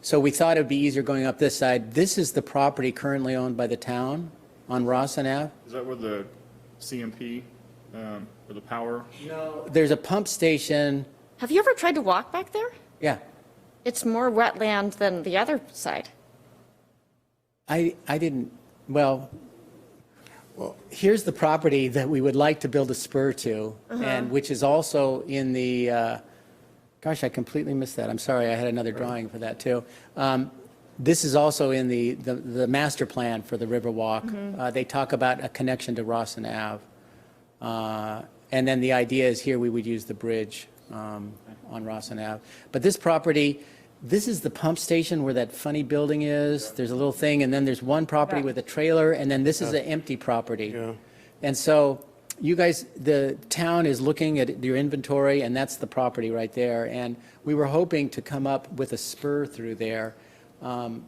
So we thought it'd be easier going up this side. This is the property currently owned by the town on Rossin Ave. Is that where the CMP, um, or the power? There's a pump station, Have you ever tried to walk back there? yeah. It's more wetland than the other side. I, I didn't, well, here's the property that we would like to build a spur to, and which is also in the, uh, gosh, I completely missed that. I'm sorry, I had another drawing for that, too. Um, This is also in the, the the master plan for the Riverwalk. Uh, They talk about a connection to Rossin Ave. Uh, And then the idea is here, we would use the bridge um, on Rossin Ave. But this property, this is the pump station where that funny building is. There's a little thing, and then there's one property with a trailer, and then this is an empty property. And so you guys, the town is looking at your inventory, and that's the property right there. And we were hoping to come up with a spur through there. Um,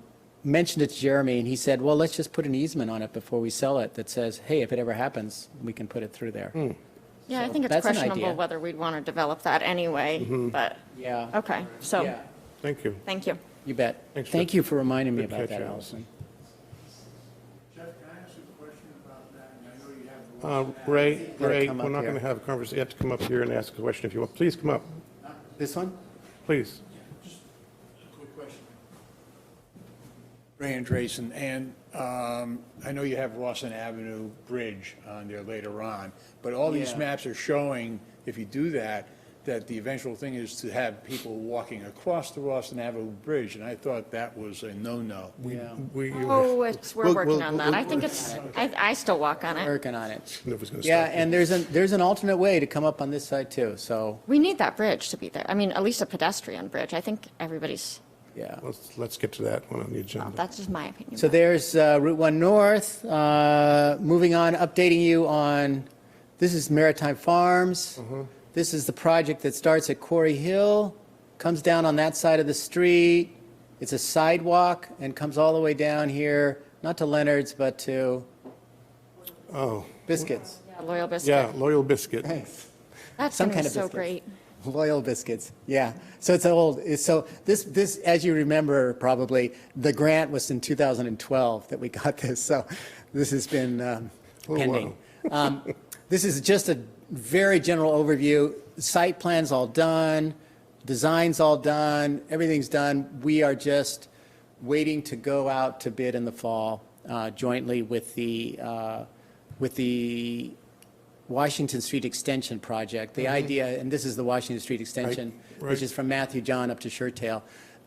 Mentioned it to Jeremy, and he said, well, let's just put an easement on it before we sell it that says, hey, if it ever happens, we can put it through there. Hmm. Yeah, I think it's that's an idea. questionable whether we'd want to develop that anyway, but, Yeah, okay, so, yeah, Thank you. thank you. you bet. Thanks, Thank Jeff. you for reminding me Good about catch, that, Allison. Allison. Jeff, can I ask you a question about that? And I know you have the Uh, Ray, Gotta Ray, come we're up not going here. to have a conversation, you have to come up here and ask a question if you want. Please come up, This one? please. quick question. Ray Andreessen, and um, I know you have Rawson Avenue Bridge on there later on, but all these Yeah. maps are showing, if you do that, that the eventual thing is to have people walking across the Rawson Avenue Bridge, and I thought that was a no-no. Yeah, We, you- Oh, it's, we're We'll- working we'll- on that. I we'll- think it's, I, I still walk on it. working on it. No one's gonna Yeah, stop you. and there's an, there's an alternate way to come up on this side, too, so, We need that bridge to be there. I mean, at least a pedestrian bridge. I think everybody's, yeah. Let's, let's get to that one on the agenda. that's just my opinion. So there's uh, Route 1 North. Uh, Moving on, updating you on, this is Maritime Farms. This is the project that starts at Quarry Hill, comes down on that side of the street. It's a sidewalk and comes all the way down here, not to Leonard's, but to Oh, Biscuits. Loyal Biscuit. yeah, Loyal Biscuit. That's Some going kind to be of so biscuits. great. Loyal biscuits, yeah. So it's old, it's- so this, this, as you remember probably, the grant was in 2012 that we got this, so this has been um, Oh, wow. pending. Um, This is just a very general overview. Site plan's all done, design's all done, everything's done. We are just waiting to go out to bid in the fall uh, jointly with the, uh, with the Washington Street Extension project. The idea, and this is the Washington Street Extension, Mm-hmm. right. which is from Matthew John up to Shertail.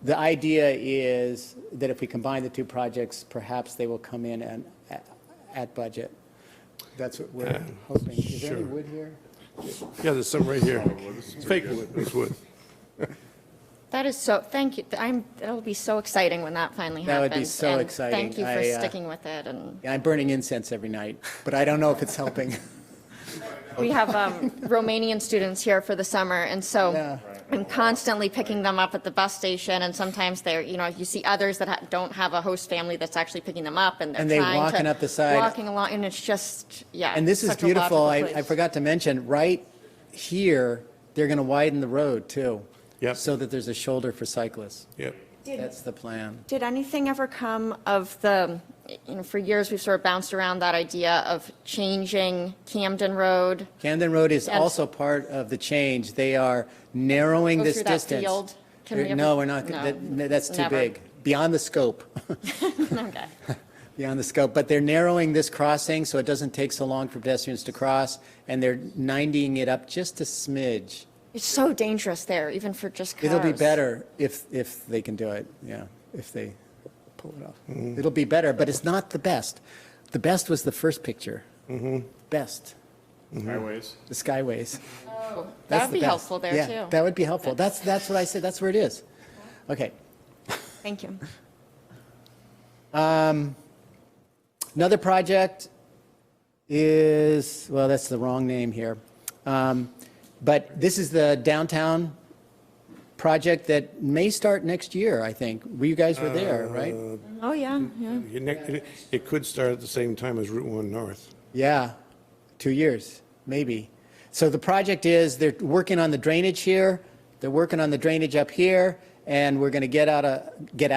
The idea is that if we combine the two projects, perhaps they will come in and at- at budget. That's what we're hoping. Is there any sure. wood here? Yeah, there's some right here. It's fake wood, it's wood. That is so, thank you. I'm, that'll be so exciting when that finally happens. That would be so and exciting. Thank you I, for uh, sticking with it and. Yeah, I'm burning incense every night, but I don't know if it's helping. We have um, Romanian students here for the summer, and Yeah. so I'm constantly picking them up at the bus station, and sometimes they're, you know, you see others that ha- don't have a host family that's actually picking them up, and they're And they trying to- walking up the side. Walking along, and it's just, yeah. And this is such a beautiful. logical I, place. I forgot to mention, right here, they're going to widen the road too. Yep. So that there's a shoulder for cyclists. Yep. That's the plan. Did anything ever come of the, you know, for years, we've sort of bounced around that idea of changing Camden Road, Camden Road is And- also part of the change. They are narrowing Go this through that distance. field? Can They're- we ever- No, we're not, No, that- no, that's too never. big, beyond the scope, okay, beyond the scope. But they're narrowing this crossing so it doesn't take so long for pedestrians to cross, and they're 90ing it up just a smidge. it's so dangerous there, even for just cars. It'll be better if, if they can do it, yeah, if they pull it off. It'll be better, but it's not the best. The best was the first picture. Best, Highways. the skyways. That's That would the Oh, be best. helpful there, Yeah, too. That would be helpful. That's, that's what I said, that's where it is. Okay. Thank you. Another project is, well, that's the wrong name here. Um, But this is the downtown project that may start next year, I think. Well, You guys were there, right? Oh, yeah, yeah. Your neck- It it could start at the same time as Route 1 North. Yeah, two years, maybe. So the project is, they're working on the drainage here, they're working on the drainage up here, and we're going to get out a, get